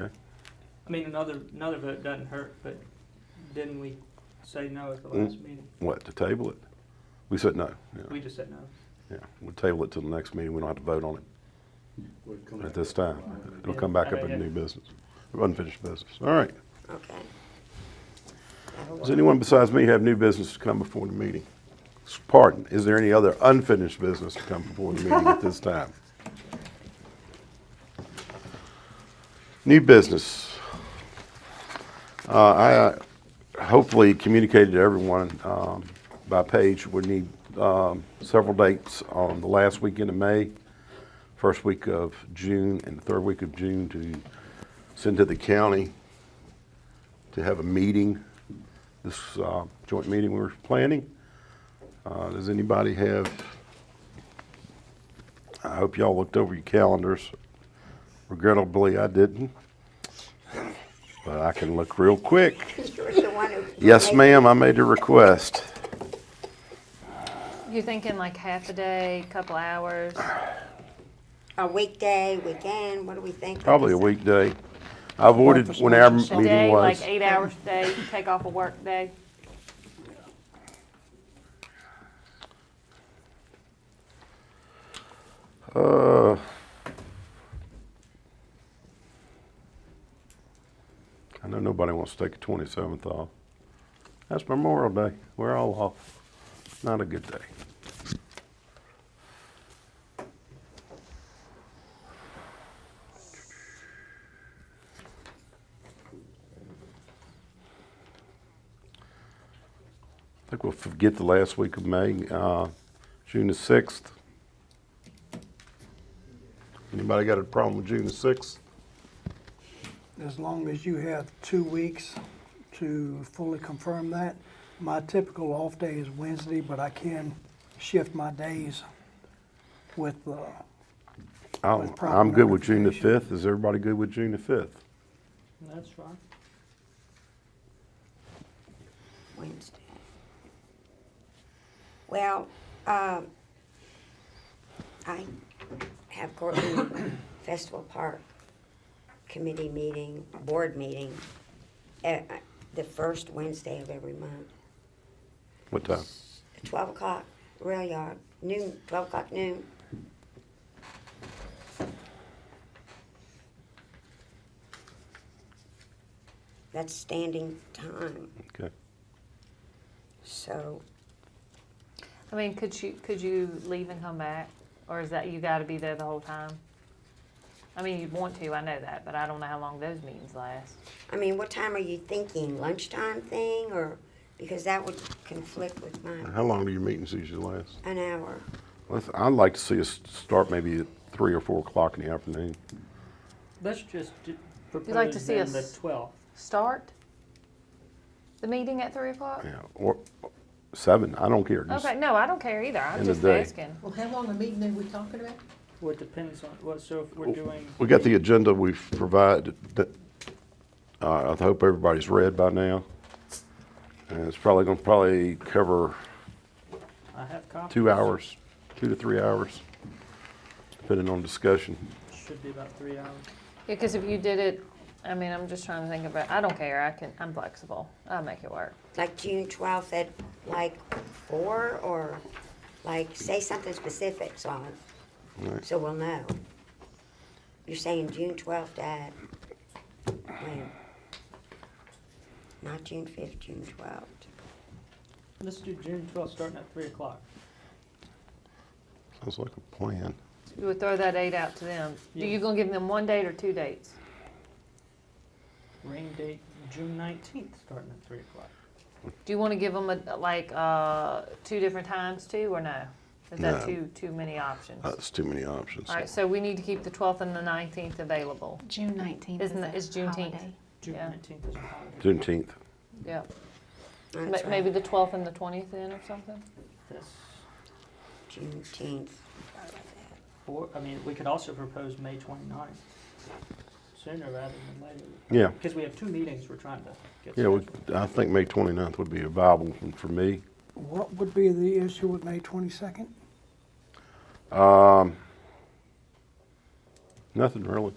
Okay. I mean, another, another vote doesn't hurt, but didn't we say no at the last meeting? What, to Mm. table it? We said no. We Yeah, just said no. yeah. We'll table it till the next meeting. We don't have to vote on it Would come at back this up. time. It'll come back up in new business, unfinished business. All right. Okay. Does anyone besides me have new business to come before the meeting? Pardon, is there any other unfinished business to come before the meeting at this time? New business. Uh, I hopefully communicated to everyone um, by page, we need um, several dates on the last weekend of May, first week of June, and the third week of June to send to the county to have a meeting, this uh, joint meeting we were planning. Uh, Does anybody have, I hope y'all looked over your calendars. Regrettably, I didn't, but I can look real quick. You're the one who. Yes, ma'am, I made a request. You're thinking like half a day, couple hours? A weekday, weekend, what do we think? Probably a weekday. I avoided when our meeting Day, was. like eight hours a day, you take off a work day? Uh, I know nobody wants to take the 27th off. That's Memorial Day. We're all off. Not a good day. I think we'll forget the last week of May, uh, June the 6th. Anybody got a problem with June the 6th? as long as you have two weeks to fully confirm that. My typical off day is Wednesday, but I can shift my days with, uh, I'm, With proper I'm good with June the notification. 5th. Is everybody good with June the 5th? That's fine. Wednesday. Well, um, I have Cortland Festival Park committee meeting, board meeting, eh, eh, the first Wednesday of every month, What time? twelve o'clock, rail yard, noon, twelve o'clock noon. That's standing time. Okay. So, I mean, could you, could you leave and come back? Or is that, you gotta be there the whole time? I mean, you'd want to, I know that, but I don't know how long those meetings last. I mean, what time are you thinking? Lunchtime thing or, because that would conflict with mine. How long do your meetings usually last? An hour. Let's- I'd like to see us start maybe at 3 or 4 o'clock in the afternoon. Let's just d- like to propose see then the us- twelfth. Start the meeting at three o'clock? Yeah, or 7, I don't care. Just- Okay, no, I don't care either, I'm End of just day. asking. Well, how long a meeting are we talking about? Well, it depends on, what, so if Oh. we're doing, We got the agenda we've provided that, uh, I hope everybody's read by now. And it's probably gonna probably cover I have copies. two hours, two to three hours, depending on discussion. Should be about three hours. Because if you did it, I mean, I'm just trying to think about, I don't care, I can, I'm flexible, I'll make it work. Like June twelfth at like four or like, say something specific, so, Right. so we'll know. You're saying June twelfth at, when? Not June fifth, June twelfth. Let's do June twelfth, starting at three o'clock. Sounds like a plan. You would throw that date out to them. Are Yeah. you gonna give them one date or two dates? Rain date, June nineteenth, starting at three o'clock. Do you want to give them a, like uh, two different times too, or no? Is No. that too too many options? Uh, That's too many options. All right, so we need to keep the 12th and the 19th available. June nineteenth Isn't that- is is a Juneteenth. holiday. June Yeah. nineteenth is a holiday. Juneteenth. Yeah, That's Ma- right. maybe the 12th and the 20th then, or something. That's Juneteenth. four, I mean, we could also propose May twenty-ninth, sooner rather than later. Yeah, Because we have two meetings we're trying to get. yeah, we, scheduled. I think May 29th would be a viable one for me. what would be the issue with May twenty-second? Um, nothing really.